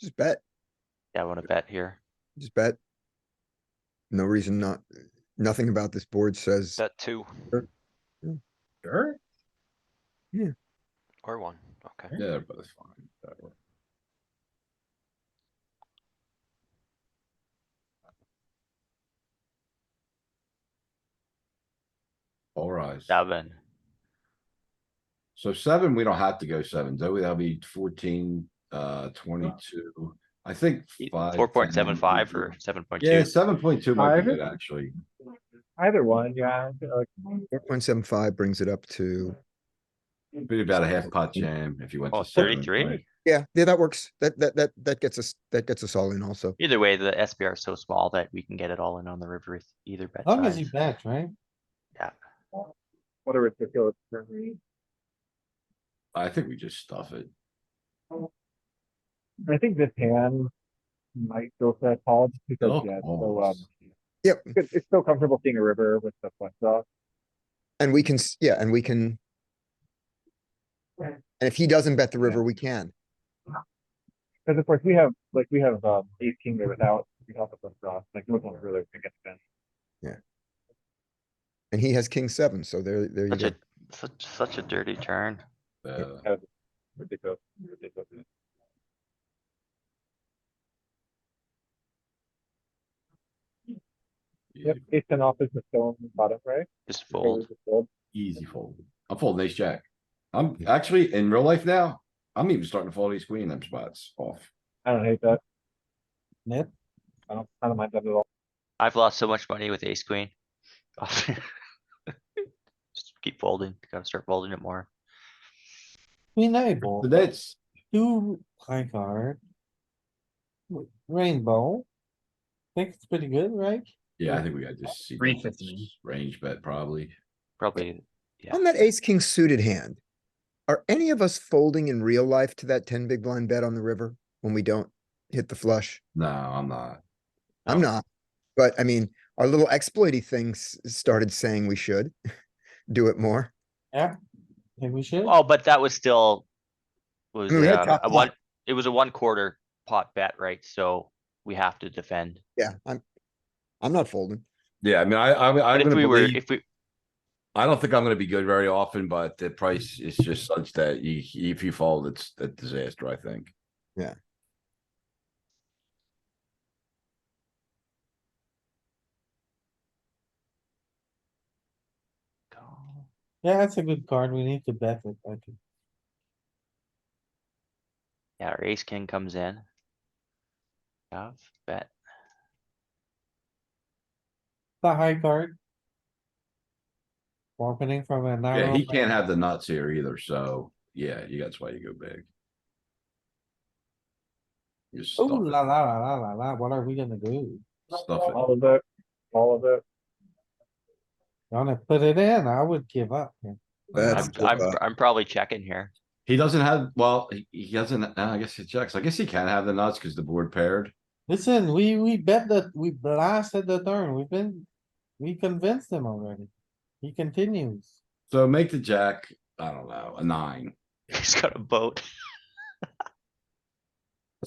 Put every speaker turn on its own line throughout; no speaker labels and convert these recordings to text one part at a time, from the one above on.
Just bet,
Yeah, I wanna bet here.
just bet. No reason not, nothing about this board says,
Bet two
Sure.
or one, okay.
Yeah, but it's fine. That works. Alright,
Seven.
so seven, we don't have to go seven, do we? That'll be fourteen, uh, twenty-two. I think five.
E Four point seven
10,
five or seven point
Yeah,
two.
seven point two might be
Five?
good, actually.
Either one, yeah. like,
four point seven five brings it up to,
Be about a half pot jam if you went
Oh,
to. seven, right?
33?
yeah, yeah, that works. That, that, that, that gets us, that gets us all in also.
Either way, the SPR is so small that we can get it all in on the river with either bet
Long as he
size.
bets, right?
What a ridiculous. turn.
I think we just stuff it.
I think this hand might go for that call just because,
Oh,
yeah, it's so, um,
almost.
Yep,
it's- it's so comfortable seeing a river with the flush draw.
and we can, s- yeah, and we can.
Right.
And if he doesn't bet the river, we can.
Cause of course we have, like, we have, um, ace king there without, without the flush draw, like, no one really against Ben.
And he has king seven, so there, there you
Such
go.
a, such, such a dirty turn.
Uh,
Ridiculous, ridiculous. Yep, ace ten off is the stone bottom, right?
Just fold.
Just fold.
Easy fold. I'm folding ace jack. I'm actually in real life now. I'm even starting to fold ace queen in them spots off.
I don't hate that.
Yep.
I don't, I don't mind that at all.
I've lost so much money with ace queen. Just keep folding, gotta start folding it more.
Queen nine, ball,
But That's,
two high card. W- Rainbow. Think it's pretty good, right?
yeah, I think we got just. see
Three
this
fifteen.
Range bet probably.
Probably, yeah.
On that ace, king suited hand, are any of us folding in real life to that ten big blind bet on the river when we don't hit the flush?
No, I'm not.
I'm
No.
not, but I mean, our little exploity things started saying we should do it more.
Think we should?
Oh, but that was still. Was,
mean, we had
uh,
top
a
pot.
one, it was a one quarter pot bet, right? So we have to defend.
Yeah, I'm, I'm not folding.
Yeah, I mean, I, I'm,
But
I'm
if
gonna
we were,
believe,
if we,
I don't think I'm gonna be good very often, but the price is just such that you, if you fold, it's a disaster, I think.
Yeah, that's a good card. We need to bet it, I think.
yeah, our ace king comes in. Shove, bet,
The high card. Opening from a
Yeah,
narrow.
he can't have the nuts here either, so, yeah, you, that's why you go big. You
Oh,
stuff
la,
it,
la, la, la, la, la. What are we gonna do?
stuff it.
All of it, all of it.
Gonna put it in. I would give up. here.
I'm,
That's,
That's-
I'm,
uh,
I'm probably checking here.
He doesn't have, well, he, he doesn't, uh, I guess he checks. I guess he can have the nuts because the board paired.
Listen, we, we bet that we blasted the turn. We've been, we convinced him already. He continues.
So make the jack, I don't know, a nine.
He's got a boat.
That's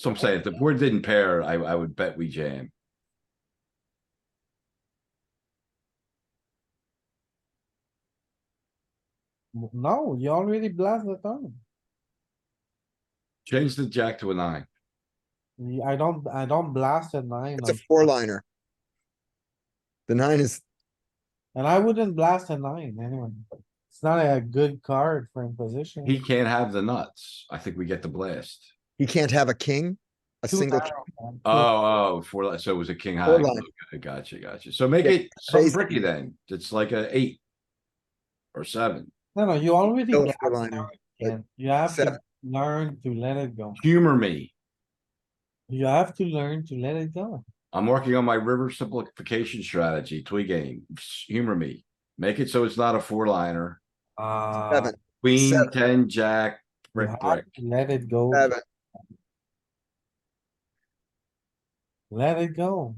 what I'm saying. If the board didn't pair, I, I would bet we jam.
No, you already blasted the turn.
Change the jack to a nine.
Yeah, I don't, I don't blast a nine,
it's a
on-
four liner. The nine is,
and I wouldn't blast a nine anyway. It's not a good card for imposition.
He can't have the nuts. I think we get the blast.
he can't have a king, a
Too
single, Uh,
narrow, man.
Oh, oh, four, li- so it was a king high.
Four line.
Okay, Gotcha, gotcha. So make
Yeah,
it some
raise-
tricky then. It's like a eight. Or seven.
No, no, you already.
Still a
blasted
four-liner,
the turn,
but
Ken. You have to
seven.
learn to let it go.
Humor me.
You have to learn to let it go.
I'm working on my river simplification strategy, Twee game. Humor me. Make it so it's not a four liner.
Uh,
seven,
Queen,
Seven.
ten, jack,
you
brick,
have
brick.
to Let it go.
seven,
Let it go.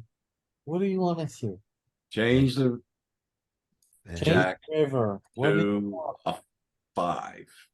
What do you wanna see?
Change the
Change
Jack
river. What do you
to
want?
a five.